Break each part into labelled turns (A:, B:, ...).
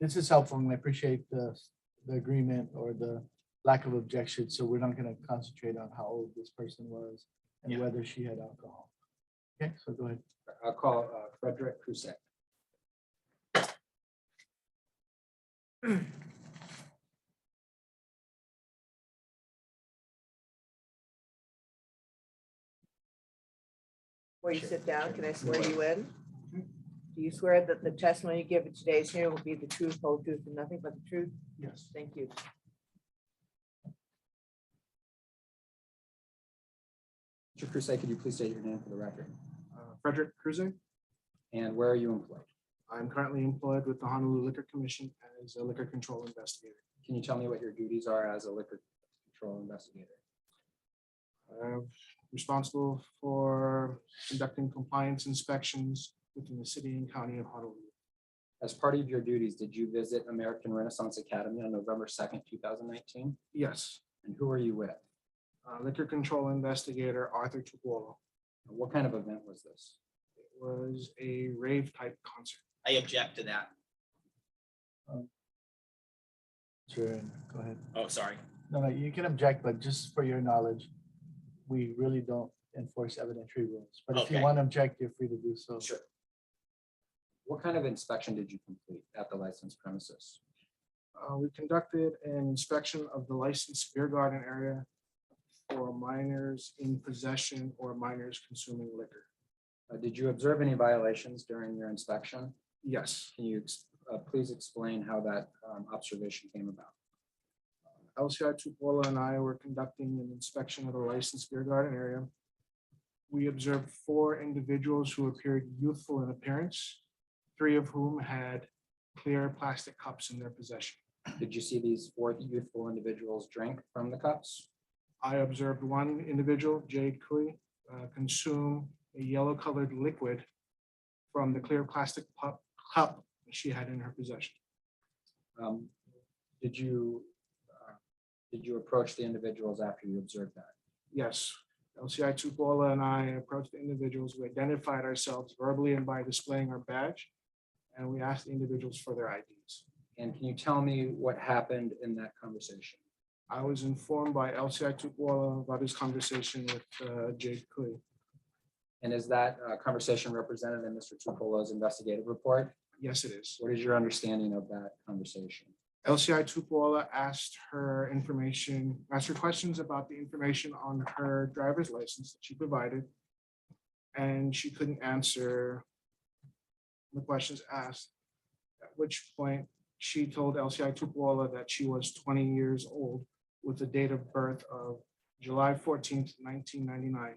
A: This is helpful and I appreciate the, the agreement or the lack of objection. So we're not going to concentrate on how old this person was and
B: Yeah.
A: whether she had alcohol. Okay, so go ahead.
B: I'll call uh, Frederick Crusett.
C: Before you
B: Sure,
C: sit down, can I
B: sure.
C: swear you in? Do you swear that the testimony you give at today's hearing will be the truth, whole truth, and nothing but the truth?
A: Yes.
C: Thank you.
B: Mr. Crusett, could you please state your name for the record?
D: Uh, Frederick Cruiser.
B: And where are you employed?
D: I'm currently employed with the Honolulu Liquor Commission as a liquor control investigator.
B: Can you tell me what your duties are as a liquor control investigator?
D: I'm responsible for conducting compliance inspections within the city and county of Honolulu.
B: As part of your duties, did you visit American Renaissance Academy on November second, two thousand nineteen?
D: Yes,
B: And who are you with?
D: uh, liquor control investigator Arthur Tupuola.
B: And What kind of event was this?
D: It was a rave type concert.
E: I object to that.
A: Sure, go ahead.
E: Oh, sorry.
A: No, no, you can object, but just for your knowledge, we really don't enforce evidentiary rules. But if you
E: Okay.
A: want to object, you're free to do so.
E: Sure.
B: What kind of inspection did you complete at the licensed premises?
D: Uh, We conducted an inspection of the licensed beer garden area for minors in possession or minors consuming liquor.
B: Uh, Did you observe any violations during your inspection?
D: Yes.
B: Can you ex- uh, please explain how that um, observation came about?
D: LCI Tupola and I were conducting an inspection of the licensed beer garden area. We observed four individuals who appeared youthful in appearance, three of whom had clear plastic cups in their possession.
B: Did you see these four youthful individuals drink from the cups?
D: I observed one individual, Jade Kui, uh, consume a yellow colored liquid from the clear plastic pu- cup she had in her possession.
B: Um, Did you, uh, did you approach the individuals after you observed that?
D: Yes, LCI Tupola and I approached the individuals. We identified ourselves verbally and by displaying our badge. And we asked the individuals for their IDs.
B: And can you tell me what happened in that conversation?
D: I was informed by LCI Tupola about his conversation with uh, Jade Kui.
B: And is that uh, conversation represented in Mr. Tupolo's investigative report?
D: Yes, it is.
B: What is your understanding of that conversation?
D: LCI Tupola asked her information, asked her questions about the information on her driver's license that she provided. And she couldn't answer the questions asked, at which point she told LCI Tupola that she was twenty years old with a date of birth of July fourteenth, nineteen ninety-nine.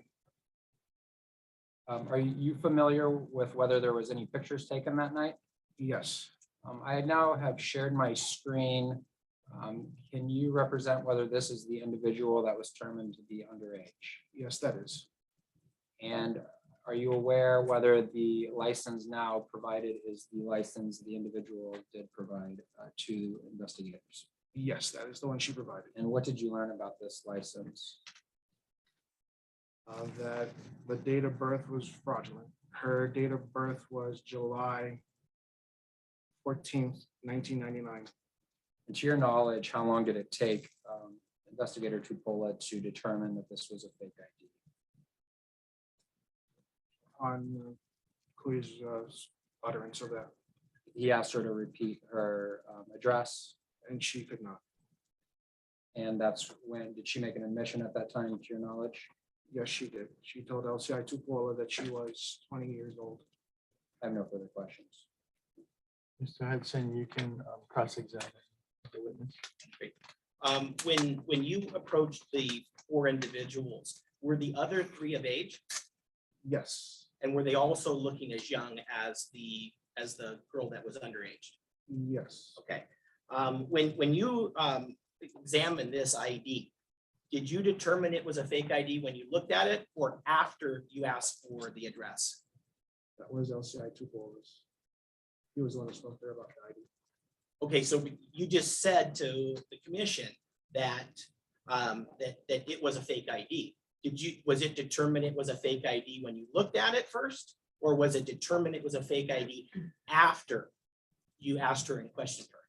B: Um, Are you familiar with whether there was any pictures taken that night?
D: Yes,
B: Um, I now have shared my screen. Um, Can you represent whether this is the individual that was determined to be underage?
D: yes, that is.
B: And are you aware whether the license now provided is the license the individual did provide uh, to investigators?
D: Yes, that is the one she provided.
B: And what did you learn about this license?
D: uh, that the date of birth was fraudulent. Her date of birth was July fourteenth, nineteen ninety-nine.
B: And to your knowledge, how long did it take um, investigator Tupola to determine that this was a fake ID?
D: On Kui's uh, utterance of that,
B: He asked her to repeat her um, address
D: and she could not.
B: and that's when, did she make an admission at that time, to your knowledge?
D: Yes, she did. She told LCI Tupola that she was twenty years old.
B: I have no further questions.
A: Mr. Hudson, you can um, cross-examine the witness.
E: Um, when, when you approached the four individuals, were the other three of age?
D: Yes,
E: And were they also looking as young as the, as the girl that was underage?
D: yes,
E: Okay. Um, when, when you, um, examined this ID, did you determine it was a fake ID when you looked at it or after you asked for the address?
D: that was LCI Tupola's. He was the one who spoke there about the ID.
E: Okay, so you just said to the commission that, um, that, that it was a fake ID. Did you, was it determined it was a fake ID when you looked at it first? Or was it determined it was a fake ID after you asked her and questioned her?